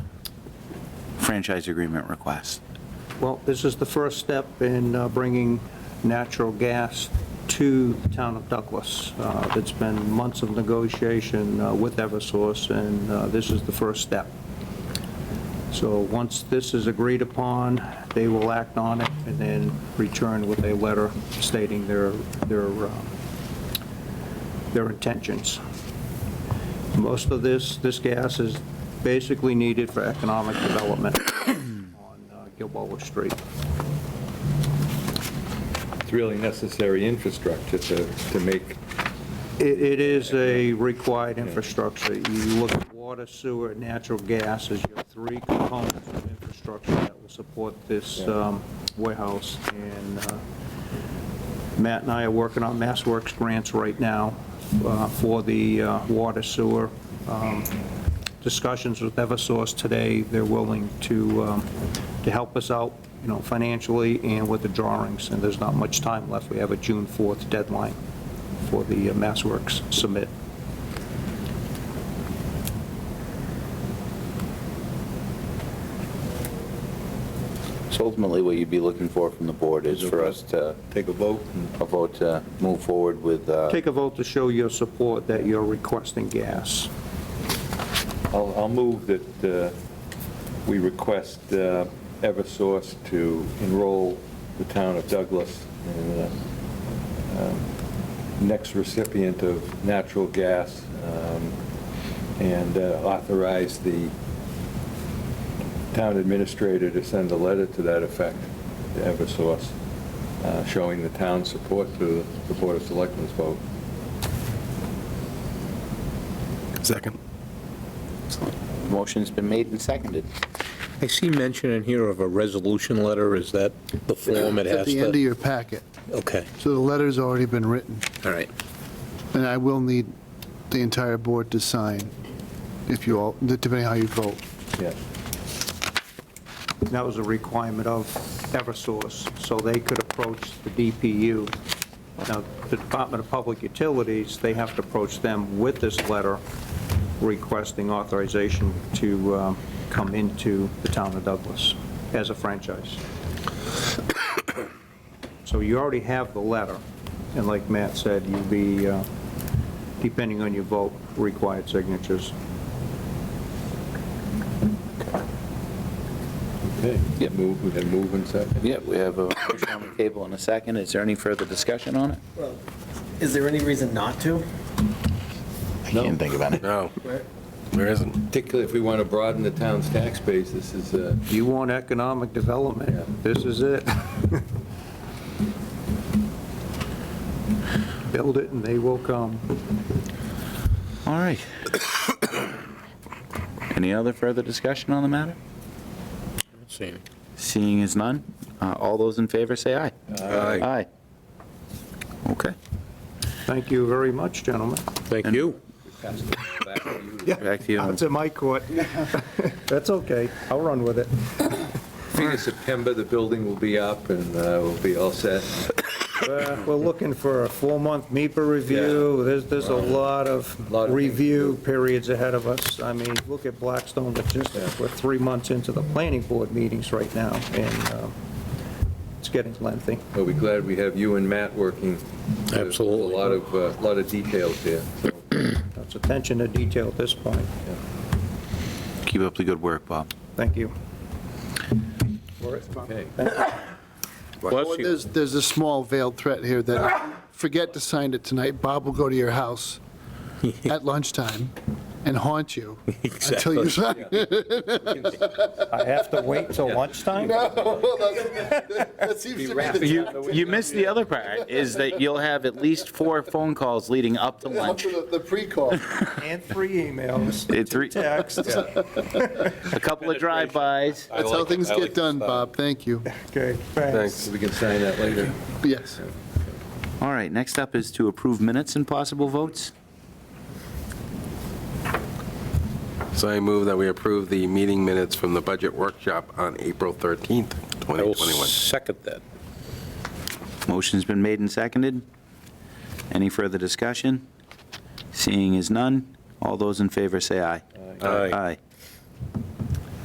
franchise agreement request. Well, this is the first step in uh, bringing natural gas to the town of Douglas. Uh, It's been months of negotiation uh, with Eversource, and uh, this is the first step. So once this is agreed upon, they will act on it and then return with a letter stating their, their, uh, their intentions. Most of this, this gas is basically needed for economic development on uh, Gilboa Street. It's really necessary infrastructure to, to make, It it is a required infrastructure. You look at water, sewer, and natural gas as your three components of infrastructure that will support this Yeah. um, warehouse. And uh, Matt and I are working on Mass Works grants right now uh, for the uh, water, sewer. um, Discussions with Eversource today, they're willing to, um, to help us out, you know, financially and with the drawings, and there's not much time left. We have a June 4th deadline for the uh, Mass Works submit. So ultimately, what you'd be looking for from the board is for us to, take a vote and a vote to move forward with, uh, Take a vote to show your support that you're requesting gas. I'll, I'll move that uh, we request uh, Eversource to enroll the town of Douglas in the um, next recipient of natural gas um, and uh, authorize the town administrator to send a letter to that effect to Eversource, uh, showing the town's support to the Board of Selectmen's vote. Second. motion's been made and seconded. I see mention in here of a resolution letter, is that the form it At has the end of to? your packet, Okay, so the letter's already been written, all right. and I will need the entire board to sign, if you all, depending how you vote. Yes. That was a requirement of Eversource, so they could approach the DPU. Now, the Department of Public Utilities, they have to approach them with this letter requesting authorization to um, come into the town of Douglas as a franchise. So you already have the letter, and like Matt said, you'll be, uh, depending on your vote, required signatures. Okay. Yep. Move, we can move in second. Yeah, we have a motion on the table and a second. Is there any further discussion on it? Well, Is there any reason not to? I can't think of any. No, Where- there isn't. Particularly if we want to broaden the town's tax base, this is, uh, You want economic development, this is it. Build it and they will come. All right. Any other further discussion on the matter? Same. Seeing as none, uh, all those in favor say aye. Aye. Aye. Okay. Thank you very much, gentlemen. Thank you. pass it back to you to Back to you. It's in my court. That's okay, I'll run with it. Beginning of September, the building will be up and uh, we'll be all set. Uh, We're looking for a four-month MIPA review, there's, there's a lot of Lot of things to review periods ahead of us. I mean, look at Blackstone Logistics, we're three months into the planning board meetings right now, and um, it's getting lengthy. We'll be glad we have you and Matt working. There's Absolutely. A lot of, a lot of details there. That's attention to detail at this point, Keep up the good work, Bob. thank you. Okay. Bless you. There's, there's a small veiled threat here that, forget to sign it tonight, Bob will go to your house at lunchtime and haunt you until you sign. I have to wait till lunchtime? That seems to be the You, you missed the other part, is that you'll have at least four phone calls leading up to lunch. the- the pre-call. And three emails, Eh, Three, texts. a couple of drive-bys. That's how things get done, Bob, thank you. Okay, thanks. We can sign that later. Yes. All right, next up is to approve minutes and possible votes. So I move that we approve the meeting minutes from the budget workshop on April 13th, I will 2021. second that. Motion's been made and seconded. Any further discussion? Seeing is none, all those in favor say aye. Aye. Aye.